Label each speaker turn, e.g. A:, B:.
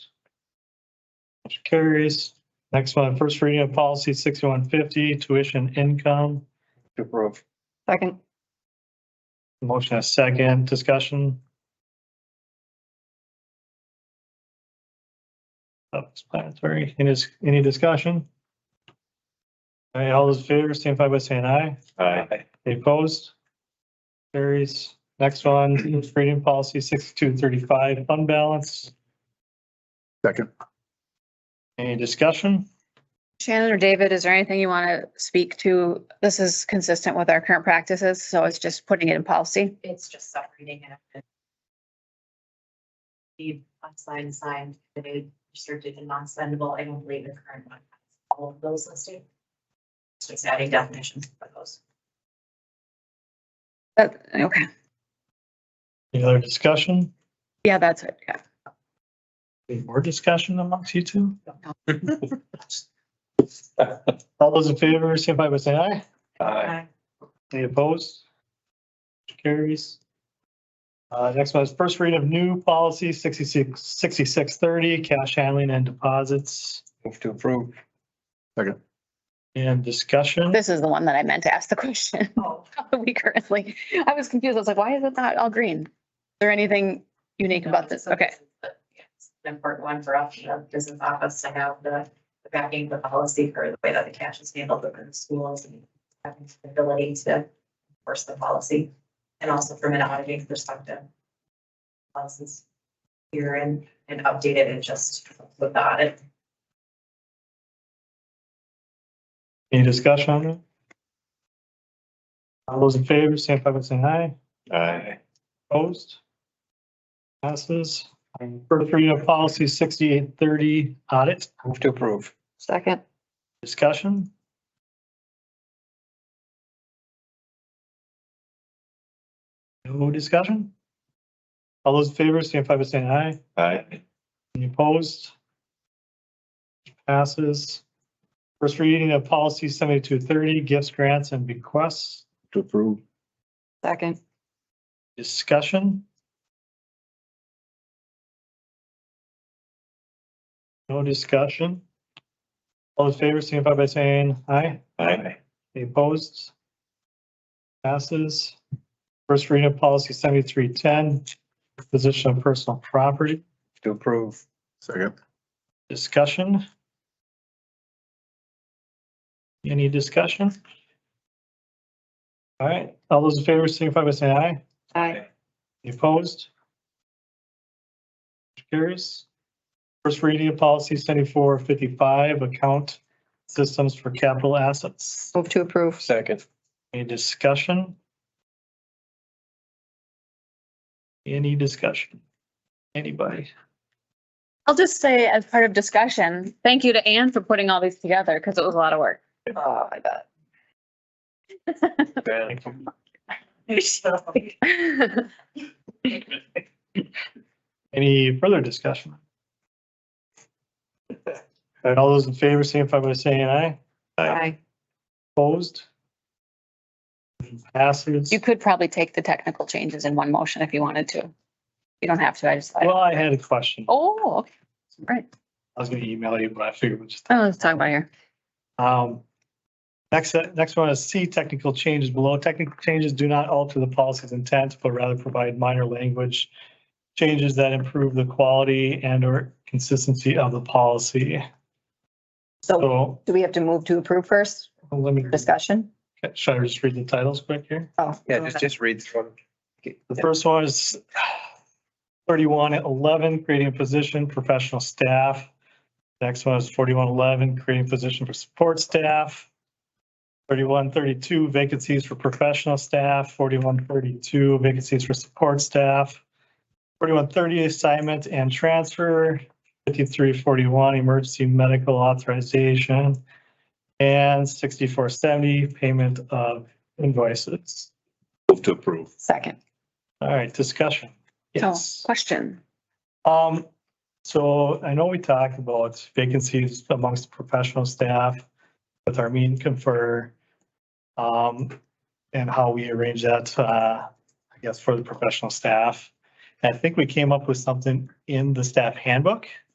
A: Motion carries. Next one, first reading of policy sixty-one fifty, tuition income. To approve.
B: Second.
A: Motion a second, discussion. Self-explanatory. Any, any discussion? All right, all those in favor, signify by saying aye.
C: Aye.
A: Any opposed? Carries. Next one, first reading policy sixty-two thirty-five, fund balance.
C: Second.
A: Any discussion?
B: Shannon or David, is there anything you want to speak to? This is consistent with our current practices, so it's just putting it in policy.
D: It's just separating it. The unsigned, signed, committed, restricted and non-spendable, I don't believe the current one, has all of those listed. So it's adding definitions for those.
B: That, Uh, okay,
A: Any other discussion?
B: yeah, that's it, yeah.
A: Any more discussion amongst you two? All those in favor, signify by saying aye.
C: Aye.
A: Any opposed? Motion Carries. Uh, next one is first read of new policy sixty-six, sixty-six thirty, cash handling and deposits
C: Move to approve. Second.
A: and discussion.
B: This is the one that I meant to ask the question.
D: Oh,
B: We currently, I was confused. I was like, why is it not all green? Is there anything unique about this?
D: so
B: Okay,
D: is the- yeah, it's an Important one for us, the business office to have the the backing, the policy for the way that the cash is handled within the schools and having the ability to enforce the policy. And also from an auditing perspective. Policies here and, and updated and just with the audit.
A: Any discussion on it? All those in favor, signify by saying aye.
C: Aye.
A: Opposed? Passes. First read of policy sixty-eight thirty, audit.
C: Move to approve.
B: second.
A: Discussion? No discussion? All those in favor, signify by saying aye.
C: Aye.
A: Any opposed? Passes. First reading of policy seventy-two thirty, gifts, grants, and bequests.
C: To approve.
B: Second.
A: Discussion? No discussion? All in favor, signify by saying aye.
C: Aye.
A: Any opposed? Passes. First reading of policy seventy-three ten, position of personal property,
C: To approve. Second.
A: discussion. Any discussion? All right, all those in favor signify by saying aye.
B: Aye.
A: Any opposed? Carries. First reading of policy seventy-four fifty-five, account systems for capital assets.
B: Move to approve.
C: Second.
A: Any discussion? Any discussion? Anybody?
B: I'll just say as part of discussion, thank you to Anne for putting all these together because it was a lot of work.
D: Oh,
B: I bet.
A: Any further discussion? And all those in favor, signify by saying aye.
D: Aye.
A: Opposed? Passes.
B: You could probably take the technical changes in one motion if you wanted to. You don't have to, I just,
A: Well, I had a question. I
B: oh, okay. right.
A: was gonna email you, but I figured we'll just,
B: Oh, let's talk about here.
A: um, next, next one is C, technical changes below. Technical changes do not alter the policy's intent, but rather provide minor language changes that improve the quality and or consistency of the policy.
B: So
A: So
B: do we have to move to approve first?
A: let me,
B: Discussion?
A: should I just read the titles quick here?
B: Oh.
C: Yeah, just, just read through.
A: The first one is thirty-one eleven, creating a position, professional staff. Next one is forty-one eleven, creating a position for support staff. Thirty-one thirty-two, vacancies for professional staff, forty-one thirty-two, vacancies for support staff. Forty-one thirty, assignment and transfer, fifty-three forty-one, emergency medical authorization. And sixty-four seventy, payment of invoices.
C: Move to approve.
B: Second.
A: All right, discussion.
B: So,
A: Yes.
B: Question.
A: Um, so I know we talked about vacancies amongst professional staff with our mean confer. Um, and how we arrange that, uh, I guess for the professional staff. And I think we came up with something in the staff handbook.